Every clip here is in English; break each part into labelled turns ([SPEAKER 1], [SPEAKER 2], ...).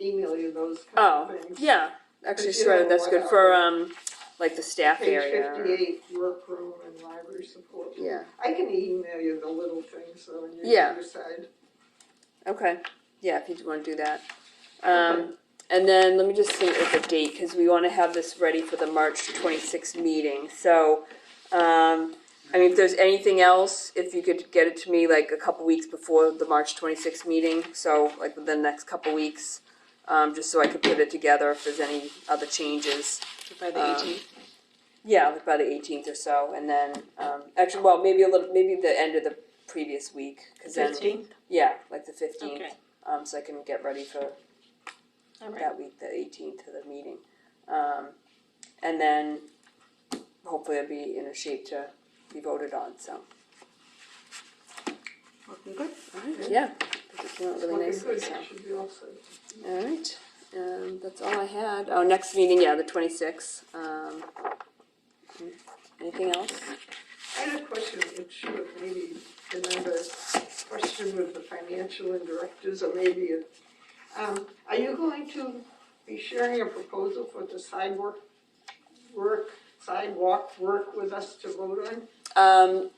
[SPEAKER 1] email you those
[SPEAKER 2] Oh,
[SPEAKER 1] kind of things.
[SPEAKER 2] yeah, actually,
[SPEAKER 1] But
[SPEAKER 2] she
[SPEAKER 1] you
[SPEAKER 2] wrote
[SPEAKER 1] know
[SPEAKER 2] that's
[SPEAKER 1] what
[SPEAKER 2] good
[SPEAKER 1] I-
[SPEAKER 2] for, um, like the staff area.
[SPEAKER 1] Page fifty-eight, workroom and library support.
[SPEAKER 2] Yeah.
[SPEAKER 1] I can email you the little things, so you
[SPEAKER 2] Yeah.
[SPEAKER 1] can decide.
[SPEAKER 2] Okay, yeah, if you wanna do that. Um, and then let me just see with the date, cause we wanna have this ready for the March twenty-sixth meeting, so, um, I mean, if there's anything else, if you could get it to me like a couple weeks before the March twenty-sixth meeting, so like within the next couple weeks, um, just so I could put it together if there's any other changes.
[SPEAKER 3] By
[SPEAKER 2] Um,
[SPEAKER 3] the eighteenth,
[SPEAKER 2] Yeah, like by the eighteenth or so, and then, um, actually, well, maybe a little, maybe the end of the previous week, cause then.
[SPEAKER 3] fifteenth,
[SPEAKER 2] Yeah, like the fifteenth,
[SPEAKER 3] Okay.
[SPEAKER 2] um, so I can get ready for
[SPEAKER 3] alright,
[SPEAKER 2] that week, the eighteenth to the meeting. Um, and then hopefully I'll be in a shape to be voted on, so,
[SPEAKER 3] looking good.
[SPEAKER 2] yeah. I think it came out really
[SPEAKER 1] Looking
[SPEAKER 2] nicely,
[SPEAKER 1] good,
[SPEAKER 2] so.
[SPEAKER 1] that should be all set.
[SPEAKER 2] Alright, um, that's all I had. Oh, next meeting, yeah, the twenty-sixth, um. Anything else?
[SPEAKER 1] I had a question, it should have maybe been under question with the financial and directors, or maybe it, um, are you going to be sharing a proposal for the sidewalk work, sidewalk work with us to vote on?
[SPEAKER 2] Um,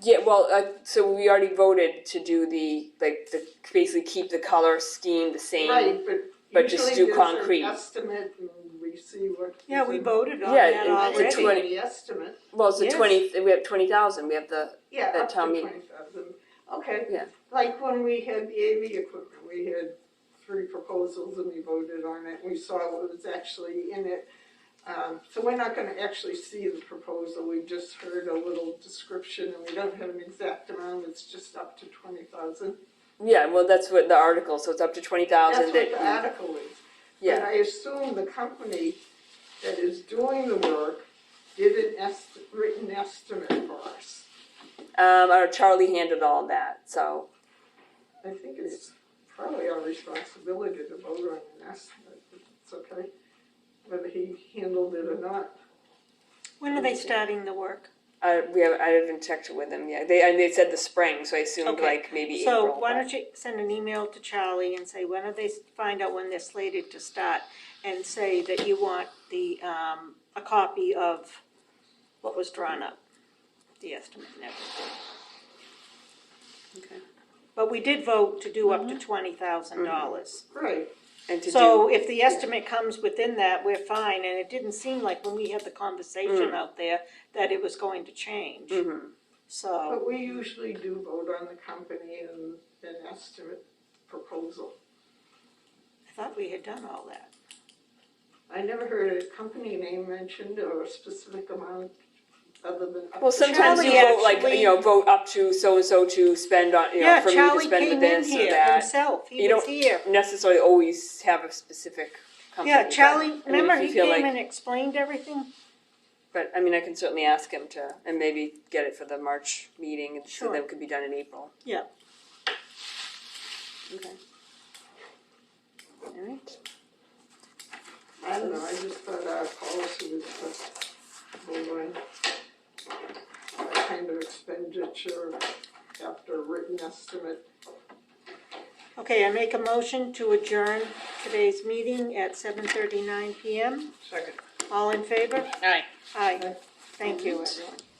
[SPEAKER 2] yeah, well, uh, so we already voted to do the, like, the, basically keep the color scheme the same.
[SPEAKER 1] Right, but
[SPEAKER 2] But just
[SPEAKER 1] usually
[SPEAKER 2] do
[SPEAKER 1] there's an
[SPEAKER 2] concrete.
[SPEAKER 1] estimate and we see what.
[SPEAKER 3] Yeah, we voted on
[SPEAKER 2] Yeah,
[SPEAKER 3] that
[SPEAKER 1] I
[SPEAKER 2] it's- it's a
[SPEAKER 3] already.
[SPEAKER 1] didn't
[SPEAKER 2] twen-
[SPEAKER 1] see the estimate,
[SPEAKER 2] Well, it's the
[SPEAKER 3] Yes.
[SPEAKER 2] twenty, we have twenty thousand, we have the,
[SPEAKER 1] yeah,
[SPEAKER 2] That
[SPEAKER 1] up to
[SPEAKER 2] town meeting.
[SPEAKER 1] twenty thousand, okay.
[SPEAKER 2] Yeah.
[SPEAKER 1] Like when we had the AV equipment, we had three proposals and we voted on it, we saw what was actually in it. Um, so we're not gonna actually see the proposal, we just heard a little description and we don't have an exact amount, it's just up to twenty thousand.
[SPEAKER 2] yeah, well, that's what the article, so it's up to twenty
[SPEAKER 1] That's
[SPEAKER 2] thousand
[SPEAKER 1] what the
[SPEAKER 2] that,
[SPEAKER 1] article is. And
[SPEAKER 2] yeah,
[SPEAKER 1] I assume the company that is doing the work did an est- written estimate for us.
[SPEAKER 2] um, our Charlie handled all that, so,
[SPEAKER 1] I think it's probably our responsibility to vote on an estimate, but it's okay, whether he handled it or not.
[SPEAKER 3] When are they starting the work?
[SPEAKER 2] I, we have, I haven't checked it with them yet, they, and they said the spring, so I assumed
[SPEAKER 3] Okay.
[SPEAKER 2] like maybe April.
[SPEAKER 3] So why
[SPEAKER 2] but-
[SPEAKER 3] don't you send an email to Charlie and say, when are they, find out when they're slated to start? And say that you want the, um, a copy of what was drawn up, the estimate and everything.
[SPEAKER 2] Okay.
[SPEAKER 3] But we did vote to do up to twenty thousand dollars.
[SPEAKER 1] Right,
[SPEAKER 2] And to do,
[SPEAKER 3] So if the estimate comes within that, we're fine, and it didn't seem like when we had the
[SPEAKER 2] Mm.
[SPEAKER 3] conversation out there that it was going to change.
[SPEAKER 2] Mhm.
[SPEAKER 3] So,
[SPEAKER 1] but we usually do vote on the company and an estimate proposal.
[SPEAKER 3] I thought we had done all that.
[SPEAKER 1] I never heard a company name mentioned or a specific amount other than. up
[SPEAKER 2] well,
[SPEAKER 1] to-
[SPEAKER 2] sometimes you
[SPEAKER 3] Charlie
[SPEAKER 2] vote like, you know,
[SPEAKER 3] actually-
[SPEAKER 2] vote up to so-and-so to spend on, you know,
[SPEAKER 3] Yeah,
[SPEAKER 2] for me to
[SPEAKER 3] Charlie
[SPEAKER 2] spend with
[SPEAKER 3] came in
[SPEAKER 2] this or
[SPEAKER 3] here
[SPEAKER 2] that.
[SPEAKER 3] himself,
[SPEAKER 2] You
[SPEAKER 3] he
[SPEAKER 2] don't
[SPEAKER 3] was here.
[SPEAKER 2] Necessarily always have a specific company,
[SPEAKER 3] Yeah,
[SPEAKER 2] but, I mean,
[SPEAKER 3] Charlie,
[SPEAKER 2] if
[SPEAKER 3] remember
[SPEAKER 2] you
[SPEAKER 3] he
[SPEAKER 2] feel like-
[SPEAKER 3] came and explained everything?
[SPEAKER 2] But I mean, I can certainly ask him to, and maybe get it for the March meeting, and so
[SPEAKER 3] Sure.
[SPEAKER 2] that it could be done in April.
[SPEAKER 3] Yeah.
[SPEAKER 2] Okay. Alright,
[SPEAKER 1] I don't know, I just thought our policy was to vote on that kind of expenditure after a written estimate.
[SPEAKER 3] Okay, I make a motion to adjourn today's meeting at seven thirty-nine PM.
[SPEAKER 1] Second.
[SPEAKER 3] All in favor?
[SPEAKER 4] Aye.
[SPEAKER 3] Aye. Thank you, everyone.